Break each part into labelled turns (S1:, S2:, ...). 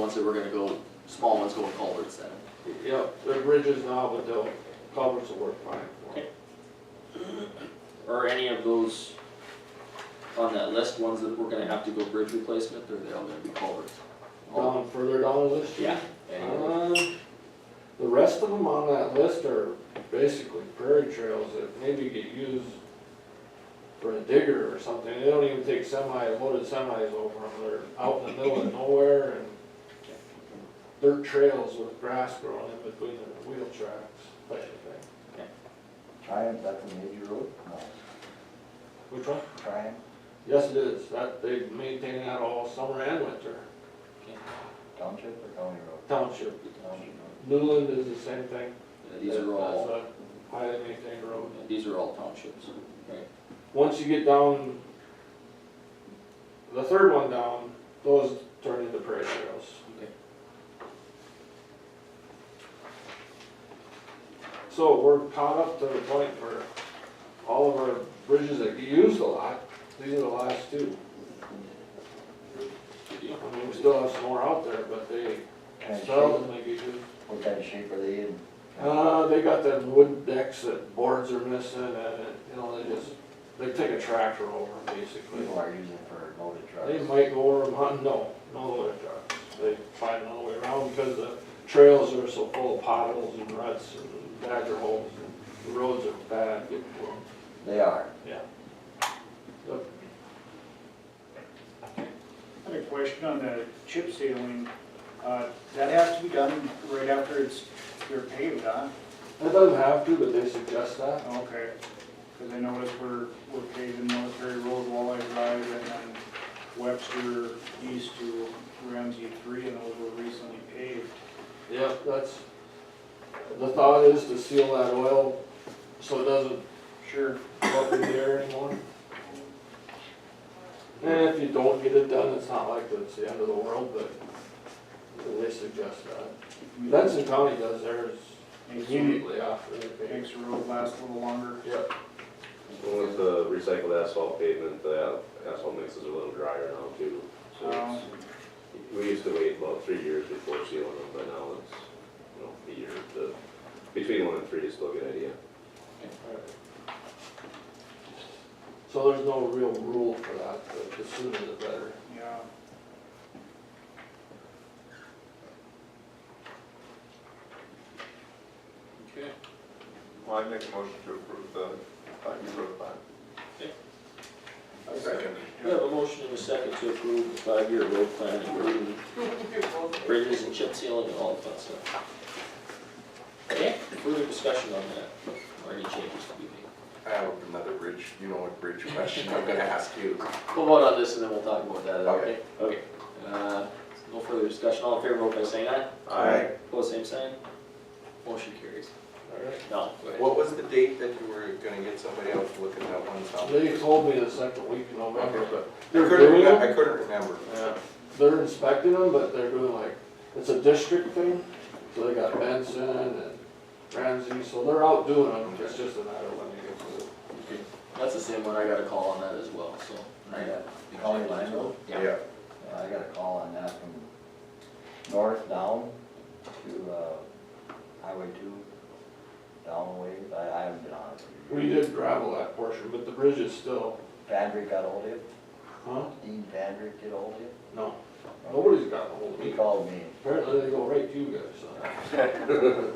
S1: ones that we're gonna go, small ones go with culverts then.
S2: Yep, the bridges now, but the culverts will work fine for them.
S1: Are any of those on that list ones that we're gonna have to go bridge replacement, or they're all gonna be culverts? All-
S2: Down further down the list?
S1: Yeah. any of them?
S2: Uh, The rest of them on that list are basically prairie trails that maybe get used for a digger or something. They don't even take semi, loaded semis over them. They're out in the middle of nowhere and dirt trails with grass growing in between the wheel tracks, type of thing.
S3: Triumph, that's a major road? No,
S2: Which one?
S3: Triumph,
S2: Yes, it is. That, they maintain that all summer and winter.
S3: township or county road?
S2: Township.
S3: Township road.
S2: Newland is the same thing.
S1: Yeah, These are all,
S2: That's a Highly maintained road.
S1: yeah, these are all townships, right?
S2: Once you get down, the third one down, those turn into prairie trails.
S1: Okay.
S2: So we're caught up to the point where all of our bridges that get used a lot, these are the last two.
S1: Good deal.
S2: I mean, we still have some more out there, but they
S3: Kind of shape,
S2: seldomly get used.
S3: what kind of shape are they in?
S2: Uh, they got them wood decks that boards are missing and, it- you know, they just, they take a tractor over 'em, basically.
S3: People are using for loaded
S2: They
S3: trucks.
S2: might go over them, huh? No, no loader trucks. They find another way around because the trails are so full of potholes and ruts and badger holes. The roads are bad, getting to 'em.
S3: They are.
S2: yeah.
S4: I had a question on the chip sealing. Uh, That has to be done right after it's, they're paved, huh?
S2: It doesn't have to, but they suggest that.
S4: Okay, because I noticed we're, we're paving Military Road, Walleye Drive, and then Webster East to Ramsey Three, and those were recently paved.
S2: Yep, that's, the thought is to seal that oil so it doesn't
S4: Sure.
S2: go up in the air anymore. And if you don't get it done, it's not like it's the end of the world, but they suggest that. Benson County does theirs
S4: Makes the-
S2: Immediately after the paving.
S4: makes the road last a little longer.
S2: Yep.
S5: With the recycled asphalt pavement, the asphalt mixes are a little drier now too. So it's- we used to wait about three years before sealing them, but now it's, you know, a year to, between one and three is still a good idea.
S2: So there's no real rule for that, but the sooner the better.
S4: Yeah.
S1: Okay,
S6: Well, I make a motion to approve the five-year road plan. Second.
S1: we have a motion and a second to approve the five-year road plan, including bridges and chip sealing and all of that stuff. Okay, further discussion on that, or any changes to be made?
S6: I have another bridge, you know what bridge question I'm gonna ask you.
S1: We'll vote on this and then we'll talk about that, okay?
S6: Okay.
S1: Okay, uh, no further discussion, all in favor, vote by saying aye.
S6: Aye.
S1: Pose same sign. Motion carries.
S2: Alright.
S1: No, go ahead.
S6: Um, What was the date that you were gonna get somebody else to look at that one song?
S2: They told me the second week in November, but
S6: I
S2: they're
S6: couldn't,
S2: doing
S6: remem-
S2: it.
S6: I couldn't remember.
S2: Yeah, they're inspecting them, but they're doing like, it's a district thing, so they got Benson and Ramsey, so they're out doing them, it's just a matter of when they get to it.
S1: That's the same one, I got a call on that as well, so.
S3: I got county line road.
S1: Yeah,
S3: Yeah, Uh, I got a call on that from north down to, uh, highway two, down the way. I, I haven't been on it.
S2: We did gravel that portion, but the bridge is still,
S3: Vandrick got ahold of you?
S2: huh?
S3: Dean Vandrick did ahold of you?
S2: No, nobody's gotten hold of
S3: He
S2: me.
S3: called me.
S2: Apparently they go right to you guys, so.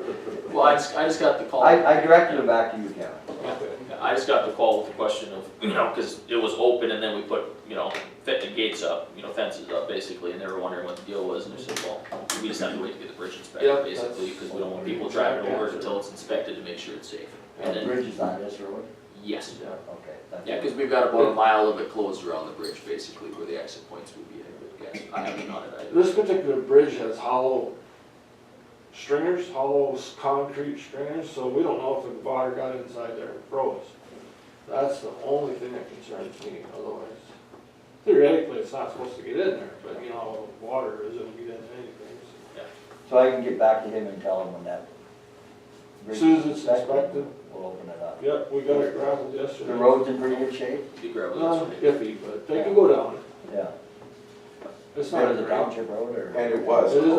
S1: well, I just, I just got the call.
S3: I, I directed it back to you, Kevin.
S1: I just got the call with the question of, you know, cause it was open and then we put, you know, fit the gates up, you know, fences up basically, and they were wondering what the deal was, and they said, well, we just have to wait to get the bridge
S2: Yeah,
S1: inspected, basically,
S2: that's-
S1: cause we don't want people driving over it until it's inspected to make sure it's safe. And
S3: The
S1: then,
S3: bridge is on this road?
S1: yes,
S3: Okay. that's-
S1: yeah, cause we've got about a mile of it closed around the bridge basically, where the exit points would be, I would guess, I haven't on it, I
S2: This particular bridge has hollow stringers, hollow s- concrete stringers, so we don't know if the water got inside there and froze. That's the only thing that concerns me, otherwise theoretically, it's not supposed to get in there, but you know, water is gonna get in anything. so.
S3: So I can get back to him and tell him when that. bridge
S2: Soon as
S3: is
S2: it's
S3: We'll open it up.
S2: Yep, we got it gravelled yesterday.
S3: The road's in pretty good shape?
S1: Be gravel,
S2: Uh,
S1: that's right.
S2: iffy, but they can go down.
S3: Yeah.
S5: It's
S2: Part
S5: not
S2: of the
S5: great.
S2: township road or?
S3: And it was.
S5: It is